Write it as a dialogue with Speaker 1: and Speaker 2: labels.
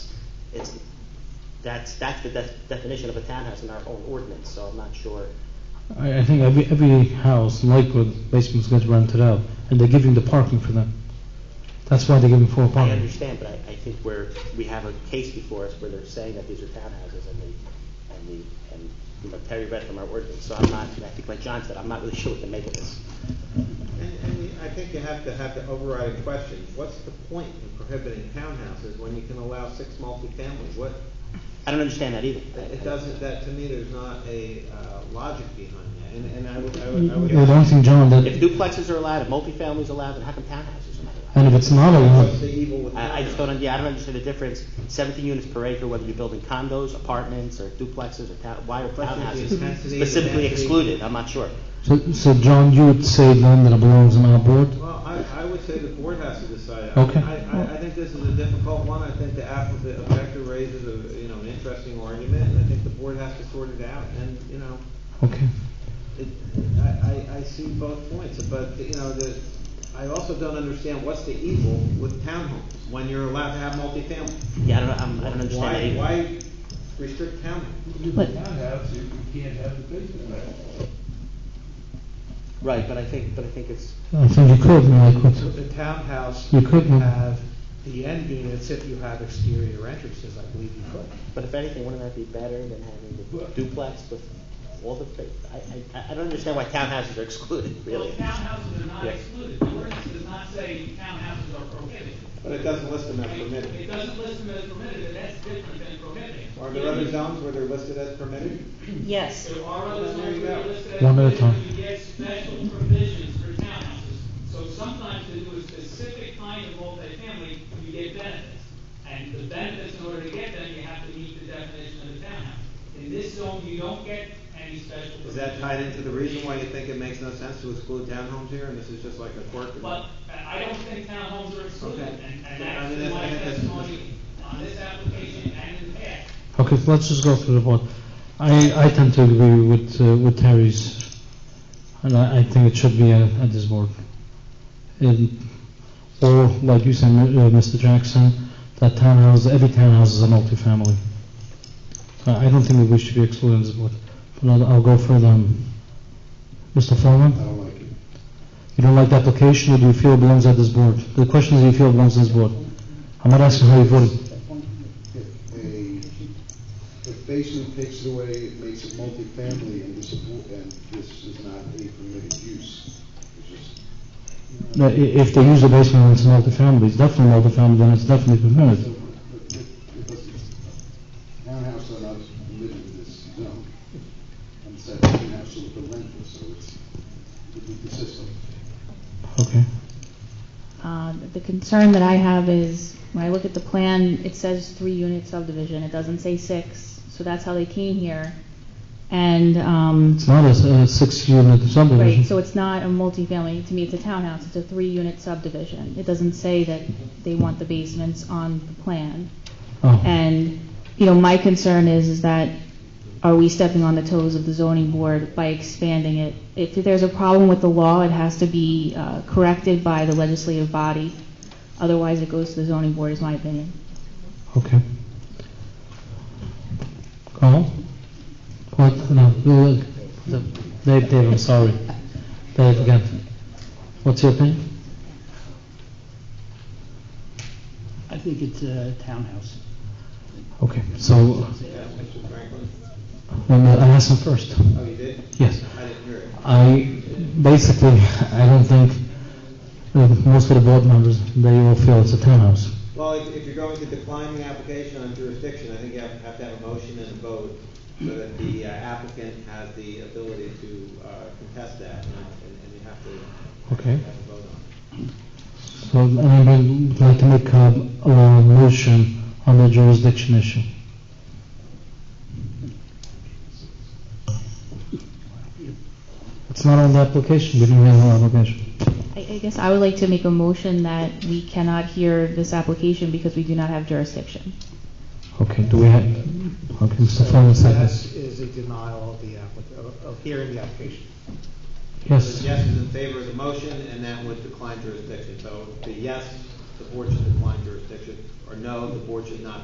Speaker 1: That's, that's the def- definition of a townhouse in our own ordinance, so I'm not sure.
Speaker 2: I, I think every, every house in Lakewood, basement's gets rented out, and they're giving the parking for them. That's why they're giving four
Speaker 1: I
Speaker 2: parking.
Speaker 1: understand, but I, I think where, we have a case before us where they're saying that these are townhouses and the, and the, and, you know, Terry read from our ordinance, so I'm not, and I think like John said, I'm not really sure what to make of this.
Speaker 3: And, and you- I think you have to have the overriding question, what's the point in prohibiting townhouses when you can allow six multifamilies? What,
Speaker 1: I don't understand that either.
Speaker 3: it doesn't, that to me, there's not a uh, logic behind that, and, and I would, I would- I would.
Speaker 2: The only thing, John,
Speaker 1: If
Speaker 2: that,
Speaker 1: duplexes are allowed, if multifamilies are allowed, then how come townhouses are not allowed?
Speaker 2: and if it's not
Speaker 3: What's the
Speaker 2: allowed,
Speaker 3: evil with
Speaker 1: I, I just
Speaker 3: townhouses?
Speaker 1: don't, yeah, I don't understand the difference, seventeen units per acre, whether you're building condos, apartments, or duplexes, or town, why are
Speaker 3: Question
Speaker 1: townhouses
Speaker 3: is intensity,
Speaker 1: specifically
Speaker 3: intensity.
Speaker 1: excluded, I'm not sure.
Speaker 2: so, so John, you would say then that it belongs on our board?
Speaker 3: Well, I, I would say the board has to decide. I
Speaker 2: Okay.
Speaker 3: mean, I, I, I think this is a difficult one, I think the app, the objector raises a, you know, an interesting argument, and I think the board has to sort it out, and, you know,
Speaker 2: Okay.
Speaker 3: it, I, I, I see both points, but, you know, the, I also don't understand what's the evil with townhomes, when you're allowed to have multifamily.
Speaker 1: Yeah, I don't, I'm, I don't understand that
Speaker 3: Why,
Speaker 1: either.
Speaker 3: why restrict townhomes?
Speaker 2: But-
Speaker 4: townhouse, you you can't have the basement in it.
Speaker 1: Right, but I think, but I think it's,
Speaker 2: I think you could in
Speaker 5: So
Speaker 2: Lakewood.
Speaker 5: the townhouse,
Speaker 2: You
Speaker 5: you
Speaker 2: could
Speaker 5: could
Speaker 2: move-
Speaker 5: have the end units if you have exterior entrances, I believe you could.
Speaker 1: but if anything, wouldn't that be better than having the duplex with all the, fa- I, I, I don't understand why townhouses are excluded,
Speaker 6: Well,
Speaker 1: really.
Speaker 6: townhouses are not
Speaker 1: Yeah.
Speaker 6: excluded, the ordinance does not say townhouses are prohibited.
Speaker 3: But it doesn't list them as
Speaker 6: It
Speaker 3: permitted.
Speaker 6: doesn't list them as permitted, and that's different than prohibited.
Speaker 3: Are there other zones where they're listed as permitted?
Speaker 7: Yes,
Speaker 6: There are other
Speaker 3: Well, there you
Speaker 6: zones where
Speaker 3: go.
Speaker 6: are listed as
Speaker 2: One at a
Speaker 6: permitted,
Speaker 2: time.
Speaker 6: you get special provisions for townhouses. So sometimes to do a specific kind of multifamily, you get benefits. And the benefits, in order to get them, you have to meet the definition of a townhouse. In this zone, you don't get any special.
Speaker 3: Is that
Speaker 6: provisions.
Speaker 3: tied into the reason why you think it makes no sense to exclude townhomes here, and this is just like a quirk?
Speaker 6: But I I don't think townhomes are excluded,
Speaker 3: Okay.
Speaker 6: and, and
Speaker 3: I
Speaker 6: that's
Speaker 3: mean, that's-
Speaker 6: my
Speaker 3: I think that's-
Speaker 6: testimony on this application and in the past.
Speaker 2: Okay, so let's just go through the board. I, I tend to agree with, uh, with Terry's, and I, I think it should be at, at this board. And, or, like you said, Mi- uh, Mr. Jackson, that townhouse, every townhouse is a multifamily. I, I don't think that we should be excluding this board, but I'll, I'll go further. on. Mr. Foreman? I don't like it. You don't like the application, or do you feel it belongs at this board? The question is, do you feel it belongs at this board? I'm not asking how you voted.
Speaker 8: If a, if basement takes it away, it makes it multifamily, and this, and this is not a permitted use, which is
Speaker 2: No, i- If they use the basement and it's multifamily, it's definitely multifamily, then it's definitely permitted.
Speaker 8: Townhouse are not permitted in this zone. And it's that townhouse with the rental, so it's, it would be consistent.
Speaker 2: Okay.
Speaker 9: Uh, The concern that I have is, when I look at the plan, it says three-unit subdivision, it doesn't say six, so that's how they came here. And, um,
Speaker 2: It's not a s- a six-unit
Speaker 9: right, so
Speaker 2: subdivision.
Speaker 9: it's not a multifamily, to me, it's a townhouse, it's a three-unit subdivision. It doesn't say that they want the basements on the plan.
Speaker 2: Oh,
Speaker 9: And, you know, my concern is, is that are we stepping on the toes of the zoning board by expanding it? If there's a problem with the law, it has to be uh, corrected by the legislative body. Otherwise, it goes to the zoning board, is my opinion.
Speaker 2: okay. Carl? What, no, no, no, no. Dave, Dave, I'm sorry. Dave, again. What's your opinion?
Speaker 5: I think it's a townhouse.
Speaker 2: Okay, so,
Speaker 3: Yeah, Mr. Franklin?
Speaker 2: um, I asked him first.
Speaker 3: Oh, you did?
Speaker 2: Yes.
Speaker 3: I didn't hear it.
Speaker 2: I, basically, I don't think, uh, most of the board members, they all feel it's a townhouse.
Speaker 3: Well, if, if you're going to decline the application on jurisdiction, I think you have, have to have a motion and a vote so that the uh, applicant has the ability to, uh, contest that, and, and and you have to
Speaker 2: Okay.
Speaker 3: have a vote on it.
Speaker 2: So I would like to make a, a motion on the jurisdiction issue. It's not on the application, we didn't have an application.
Speaker 9: I I guess I would like to make a motion that we cannot hear this application because we do not have jurisdiction.
Speaker 2: Okay, do we have, okay,
Speaker 5: So
Speaker 2: Mr. Foreman,
Speaker 5: that
Speaker 2: second.
Speaker 5: is a denial of the applic, of- of hearing the application.
Speaker 2: Yes,
Speaker 3: The yes is in favor of the motion, and that would decline jurisdiction. So the yes, the board should decline jurisdiction, or no, the board should not